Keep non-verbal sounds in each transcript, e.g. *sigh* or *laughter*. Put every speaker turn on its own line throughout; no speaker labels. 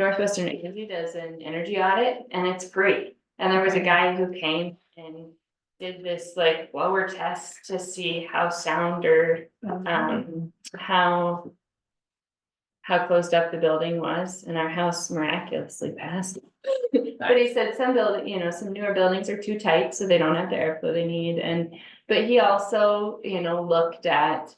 Northwestern Energy does an energy audit and it's free. And there was a guy who came and did this like blower test to see how sound or um how. How closed up the building was and our house miraculously passed. *laughs* But he said some building, you know, some newer buildings are too tight, so they don't have the airflow they need and, but he also, you know, looked at.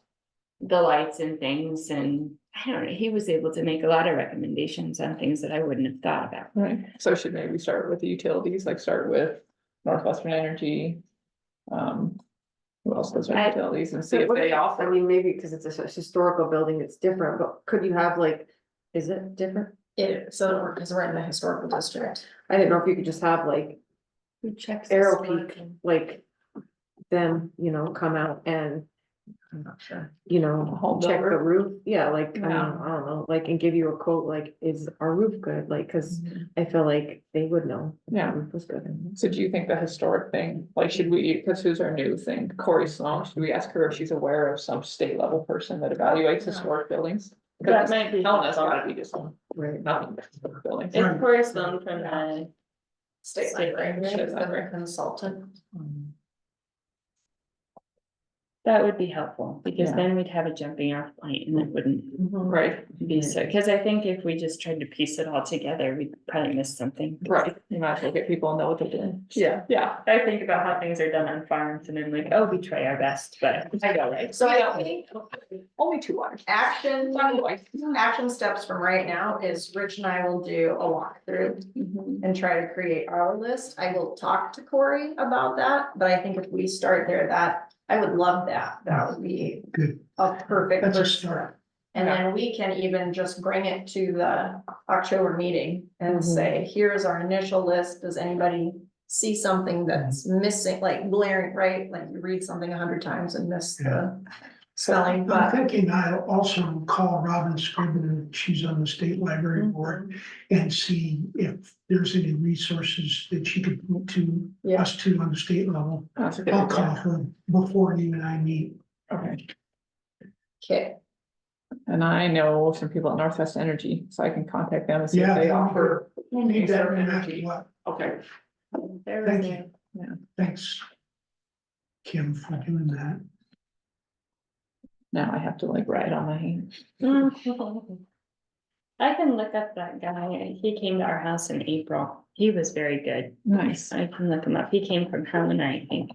The lights and things and I don't know, he was able to make a lot of recommendations on things that I wouldn't have thought about.
Right, so should maybe start with the utilities, like start with Northwestern Energy. Um, who else does
I-
utilities and see
So
if
what
they
if- I
offer,
mean, maybe because it's a s- historical building, it's different, but could you have like, is it different?
It, so, because we're in the historical district.
I didn't know if you could just have like,
Who checks?
the Arrow solar Peak. like them, you know, come out and,
I'm not sure.
you
A whole
know, check the
builder?
roof. Yeah, like, I mean,
Yeah.
I don't know, like, and give you a quote, like, is our roof good? Like, cause I feel like they would know. if
Yeah.
our Roof was good.
so do you think the historic thing, like, should we, cause who's our new thing, Corey Sloan, should we ask her if she's aware of some state level person that evaluates historic buildings? Cause
might be.
telling us gotta be just one,
Right.
nothing, but historic buildings.
It's Forrest Gump from the,
State
State
library,
library.
is that a consultant?
that would be helpful, because then we'd have a jumping off point and it wouldn't
Right,
be so, cause I think if we just tried to piece it all together, we'd probably miss something.
right, you might as well get people and know what they're doing.
Yeah.
Yeah,
I think about how things are done on farms and then like, oh, we try our best, but I know, right?
So I think
only two hours.
action,
One way.
action steps from right now is Rich and I will do a walkthrough and try to create our list. I will talk to Corey about that, but I think if we start there, that, I would love that. That would be a perfect
That's a
first step. And then we can even just bring it to the October meeting and
Mhm.
say, here's our initial list. Does anybody see
Mm-hmm.
something that's missing, like glaring, right? Like you read something a hundred times and miss the spelling,
I'm
but
thinking I'll also call Robin Scrivener, she's on the state
Mm-hmm.
library board, and see if there's any resources that she could point to
Yeah.
us to on the state level.
That's a good
I'll
idea.
call her before you and I meet.
Okay,
okay.
and I know some people at Northwest Energy, so I can contact them and see if
Yeah.
they offer.
We'll need that no matter
Energy.
what.
Okay,
Thank you. Thanks. Kim for doing that.
now I have to like write on my hand.
I can look up that guy, he came to our house in April, he was very good,
Nice.
I can look him up, he came from Helena, I think.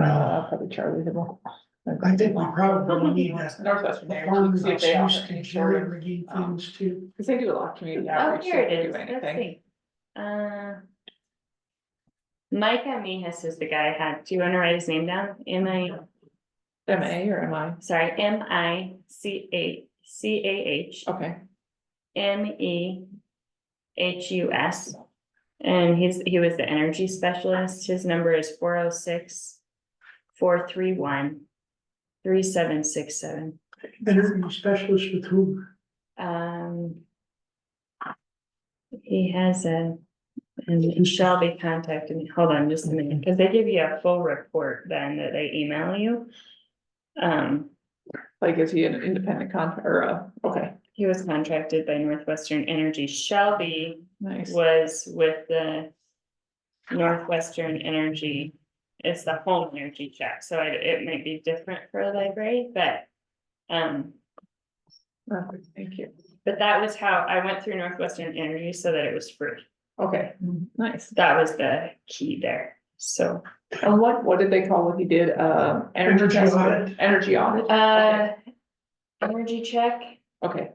Uh, probably Charlie Hill.
I think we
*laughs*
probably need that.
Northwestern Energy,
Farmers
see if they offer um, any
used to
sort of,
irrigate things too.
because they do a lot of community
Oh,
outreach.
here
they
it
do
is, let's
anything.
see. Uh, Micah Mehus is the guy I had, do you wanna write his name down? M I,
M A or M I,
sorry, M I C A, C A H,
okay,
M E H U S. And he's, he was the energy specialist, his number is four oh six, four three one, three seven six seven,
Interview specialist with who?
um. He has a, and he shall be contacted, hold on just a minute, because they give you a full report then that they email you. Um,
like is he an independent con, or a, okay,
he was contracted by Northwestern Energy, shall be
nice.
was with the Northwestern Energy. It's the home energy check, so it, it might be different for a library, but, um,
Perfect, Thank you,
but that was how I went through Northwestern Energy so that it was free.
okay,
Mm-hmm.
nice.
That was the key there, so.
And what, what did they call what he did, uh?
Energy
test-
audit.
Energy audit,
Uh, energy check,
okay,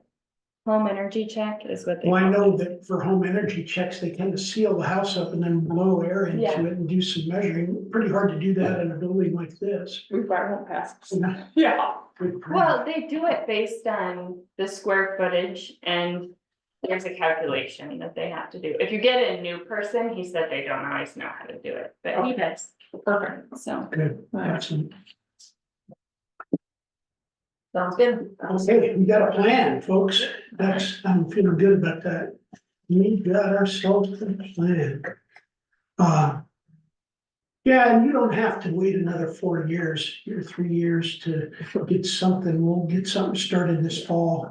home energy check is what they.
Well, I know that for home energy checks, they tend to seal the house up and then blow air into
Yeah.
it and do some measuring. Pretty hard to do that in a building like this.
we fired him past.
Good
Yeah.
for
Well, they do it based on the square footage and there's a calculation that they have to do. If you get a new person, he said they don't always know how to do it, but he does,
Perfect.
so.
Good,
Nice.
excellent.
Sounds good.
Okay, we got a plan, folks. That's, I'm feeling good about that. We got ourselves a plan. Uh, Yeah, and you don't have to wait another four years, or three years to get something, we'll get something started this fall.